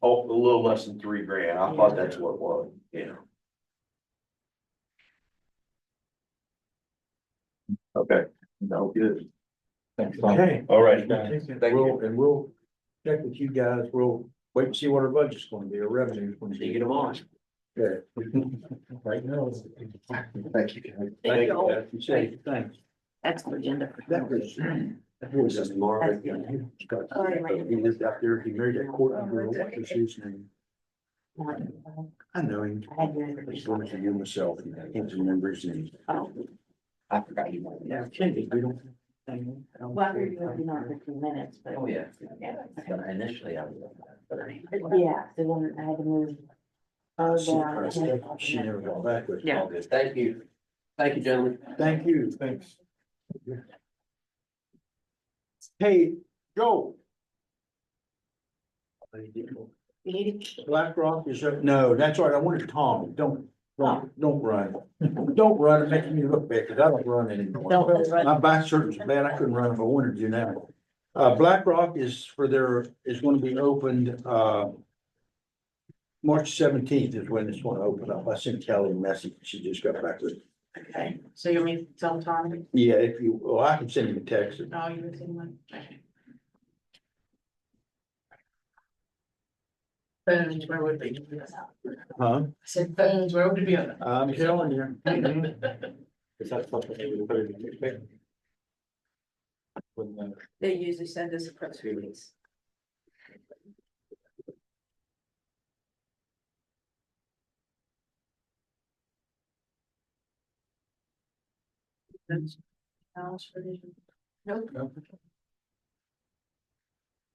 Oh, little less than three grand. I thought that's what it was, yeah. Okay, no, good. Thanks, Tom. Okay. All right. Thank We'll, and we'll check with you guys. We'll wait and see what our budget's gonna be, our revenue's gonna be. them on. Yeah. Right now. it's- Thank you. guys. Thank you all. guys. You say, thanks. That's the agenda. for That was- That was just Marvin. He Oh, lived out there. He married that court. I don't know what was his name. I know him. Uh, I had your- I just wanted to hear myself. and I can't remember his name. Oh, I forgot you wanted. Yeah, Kenny. We don't. Well, you're working on it for two minutes, but. Oh, yeah. Yeah, Initially, I was. so then I had to move. Oh, She never- yeah. she never got back with. Yeah. All good. Thank you. Thank you, gentlemen. Thank you, thanks. Hey, Joe. BlackRock is, up- no, that's all right, I wanted Tom, don't, don't, don't run. Don't run, it makes me look bad, because I don't run anymore. Don't run. My back surgery's bad, I couldn't run if I wanted to now. Uh, BlackRock is for their, is gonna be opened, uh. March seventeenth is when it's gonna open up, I sent Kelly a message, she just got back with, Okay, so you mean tell Tommy? yeah, if you, well, I can send him a text. No, you were saying one. Okay. Phones, where would they? be? Huh? I said phones, where would it be on? I'm telling you. Is that something that you put in the newspaper? When, uh, They usually send us a press release. House for the- Nope.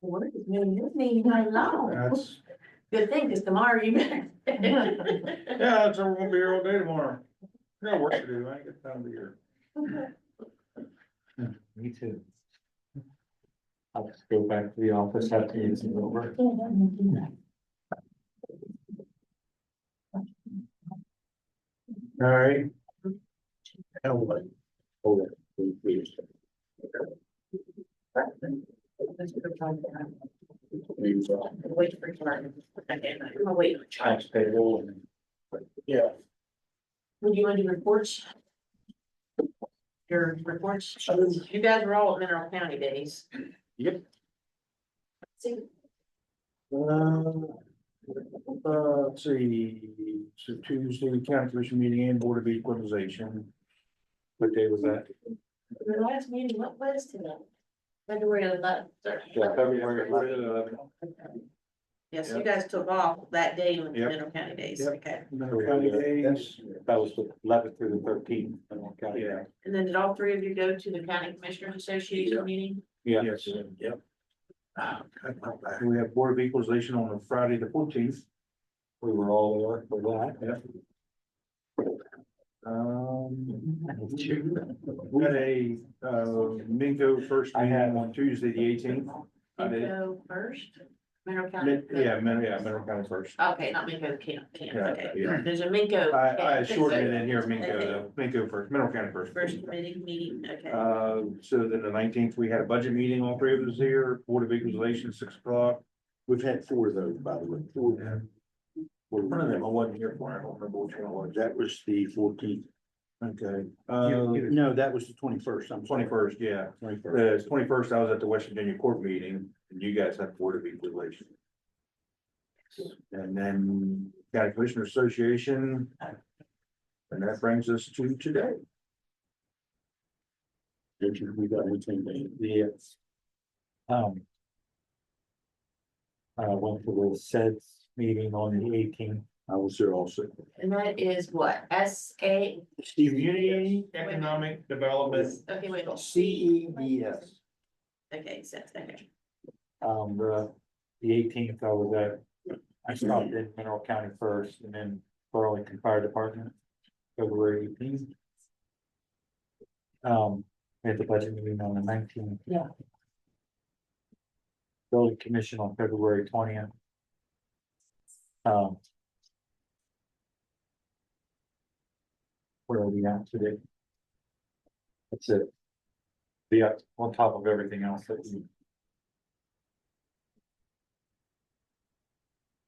What is new mutiny? I know. That's, Good thing, because tomorrow you. Yeah, so we're gonna be here all day tomorrow. I got work to do. I ain't got time to be here. Me too. I'll just go back to the office after you get over. all right. Now what? Hold on, wait, wait a second. Maybe so. Wait for Jordan. Okay, I'm gonna wait. Tax payroll and. Yeah, Would you want to do reports? Your reports, Sure. you guys were all at Mineral County days. Yep. See, um, uh, let's see, so Tuesday, county commission meeting and board of equalization. What day was that? the last meeting, what was today? February eleventh. February eleventh. Yes, you guys took off that day with the Yep. Mineral County days, Yep. okay, County days. That was the eleventh through the thirteenth. Yeah. and then did all three of you go to the County Commissioners Association meeting? Yeah. Yes, yep. Ah, God, my back. We have board of equalization on Friday the fourteenth. We were all there for that. Um, we had a, uh, Mingo first I had meeting on Tuesday, the eighteenth. I You did. go first, Mineral County. Yeah, Min- yeah, Mineral County first. Okay, not Minko, Camp, Camp, Yeah, okay, yeah. there's a Minko. I, I Camp. shortened it in here, Mingo, though. Mingo first, Mineral County first. First committee meeting, okay, Uh, so then the nineteenth, we had a budget meeting, all three of us here, Board of Equalization, six o'clock. We've had four of those, by the way. One of them, I wasn't here for, I don't remember which one it was. That was the fourteenth. Okay, uh, um, no, that was the twenty-first, I'm. Twenty-first, yeah. Twenty-first. twenty-first, I was at the West Virginia Court meeting, and you guys had Board of Equalization. And then County Commissioner Association. And that brings us to today. We got anything Yes. Um. I went to the SEDS meeting on the eighteenth. I was there also. and that is what, S A, Community Economic Development. okay, wait. C E D S. Okay, so, okay, Um, the, the eighteenth, I was at, I stopped in Mineral County first and then Burlington Fire Department, February eighteenth. Um, we had the budget meeting on the nineteenth. Yeah. Building Commission on February twentieth. Um. Where are we at uh, today? That's it. Yeah, on top of everything else that we